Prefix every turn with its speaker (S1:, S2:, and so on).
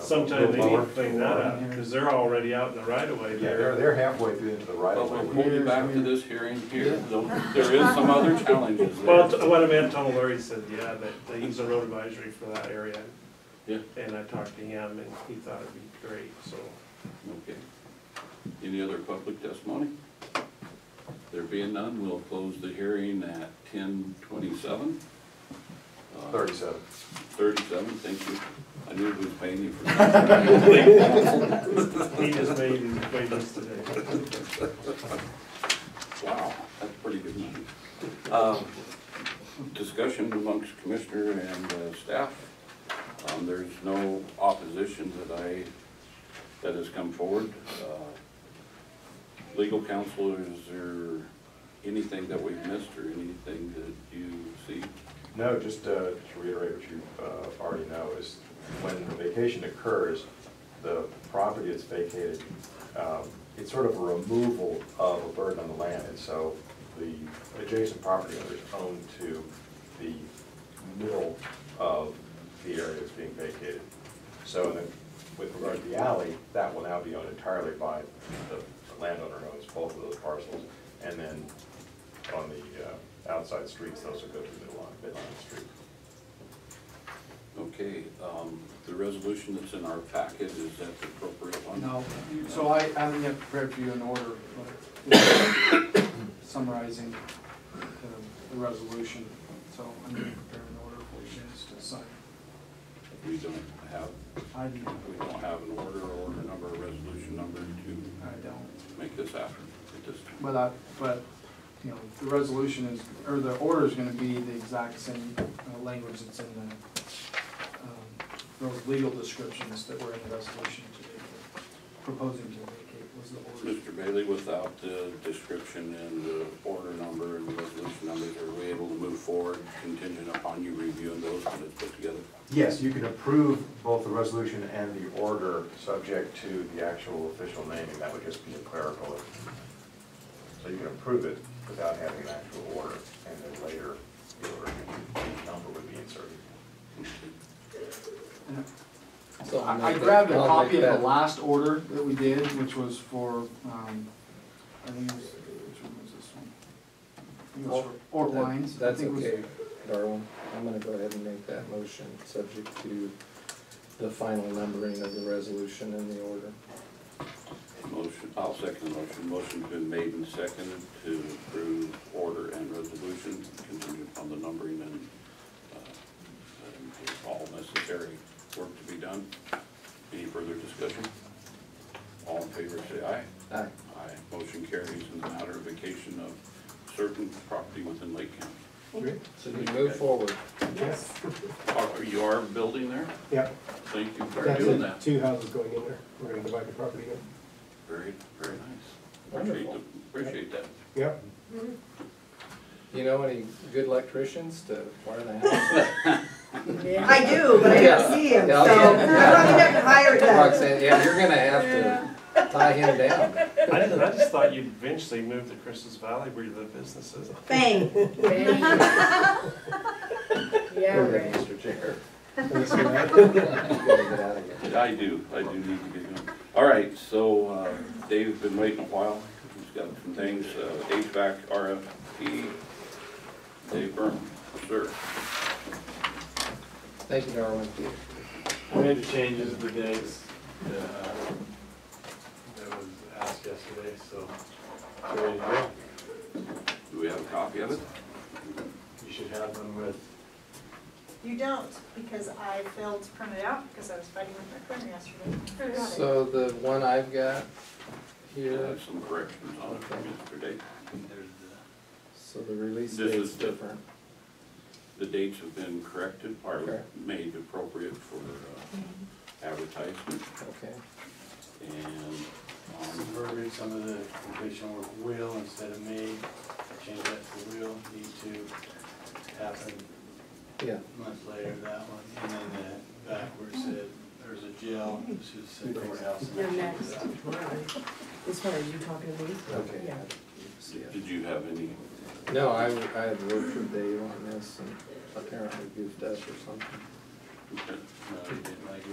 S1: Sometime they need
S2: Lower.
S1: to clean that up, because they're already out in the right of way
S2: Yeah, they're,
S1: there.
S2: they're halfway through into the right
S3: But
S2: of
S3: we'll
S2: way.
S3: pull you back to this hearing here, though there is some other challenges
S1: Well,
S3: there.
S1: t- what I meant, Tom Lurie said, yeah, that they use a road advisory for that area.
S3: Yeah.
S1: And I talked to him and he thought it'd be great, so.
S3: Okay. Any other public testimony? There being none, we'll close the hearing at ten twenty-seven.
S2: Thirty-seven.
S3: Thirty-seven, thank you. I knew it was paying you for that.
S1: He just made his wages today.
S3: Wow, that's pretty good money. Um, Discussion amongst commissioner and uh, staff. Um, There's no opposition that I, that has come forward. Uh, Legal counsel, is there anything that we've missed or anything that you see?
S2: No, just uh, to reiterate what you uh, already know is when vacation occurs, the property is vacated. um, It's sort of a removal of a burden on the land, and so the adjacent property owners own to the middle of the area that's being vacated. So then, with regard to the alley, that will now be owned entirely by the landowner who owns both of those parcels. And then on the uh, outside streets, those will go to the middle line, midline street.
S3: Okay, um, the resolution that's in our packet, is that the appropriate one?
S4: No, you- so I, I haven't yet prepared for you an order, but summarizing the- the resolution, so I'm gonna prepare an order for you guys to sign.
S3: We don't have,
S4: I do,
S3: we don't have an order or a number, a resolution number to
S4: I don't,
S3: make this happen at this time.
S4: but I, but, you know, the resolution is, or the order is gonna be the exact same uh, language that's in the, um, those legal descriptions that were in the resolution today, proposing to vacate was the order.
S3: Mr. Bailey, without the description and the order number and the resolution numbers, are we able to move forward contingent upon you reviewing those when it's put together?
S2: Yes, you can approve both the resolution and the order, subject to the actual official naming, that would just be a clerical. error. So you can approve it without having an actual order, and then later, the order, the number would be inserted.
S4: And
S5: So I'll
S4: I I
S5: make
S4: grabbed a
S5: that- I'll
S4: copy
S5: make
S4: of the
S5: that-
S4: last order that we did, which was for, um, I think it was, which one was this one? I think it was for Orp
S5: that-
S4: Lines. I
S5: That's
S4: think it was-
S5: okay, Darwin. I'm gonna go ahead and make that motion, subject to the final numbering of the resolution and the order.
S3: Motion, I'll second the motion. Motion's been made and seconded to approve order and resolution contingent upon the numbering and, uh, and all necessary work to be done. Any further discussion? All in favor, say aye.
S5: Aye.
S3: Aye. Motion carries in the matter of vacation of certain property within Lake County.
S5: So we move forward.
S6: Yes.
S3: Are you are building there?
S6: Yeah,
S3: Thank you for
S6: that's
S3: doing
S6: it,
S3: that.
S6: two houses going in there, we're gonna divide the property again.
S3: Very, very nice. Appreciate, the- appreciate that.
S6: Yeah,
S5: You know any good electricians to wire the house?
S7: I do, but I don't see him, so
S5: Yeah.
S7: I'm probably not gonna hire them.
S5: Roxanne, yeah, you're gonna have to tie him down.
S1: I didn't, I just thought you'd eventually move to Christmas Valley where the business is.
S7: Bang,
S8: Yeah, right.
S5: Mr. Chair.
S6: Thanks,
S5: You gotta get out of here.
S3: I do, I do need to get going. All right, so uh, Dave's been waiting a while. He's got some things, uh, HVAC RFP. Dave Byrne, sir.
S5: Thank you, Darwin.
S9: We made the changes to the dates that, uh, that was asked yesterday, so. so we-
S3: Do we have a copy of it?
S9: You should have them with,
S10: You don't, because I failed to print it out because I was fighting with my printer yesterday. Forgot it.
S5: So the one I've got
S3: Yeah,
S5: here,
S3: there's some corrections on it from yesterday.
S5: so the release
S3: This
S5: date's
S3: is the-
S5: different.
S3: The dates have been corrected,
S5: Okay.
S3: or made appropriate for uh, advertisement.
S5: Okay,
S3: And
S9: some
S3: um,
S9: verbiage, some of the completion work will instead of may, change that to will, need to happen
S5: yeah.
S9: a month later, that one. And then the backwards said, there's a jail, this is said courthouse. and
S8: You're
S9: that
S8: next.
S9: should be that.
S7: as far as you talking to me?
S5: Okay.
S7: Yeah.
S3: did you have any,
S5: No, I, I had worked for Dave on this and apparently goofed up or something.
S3: uh,
S9: No, they didn't like it.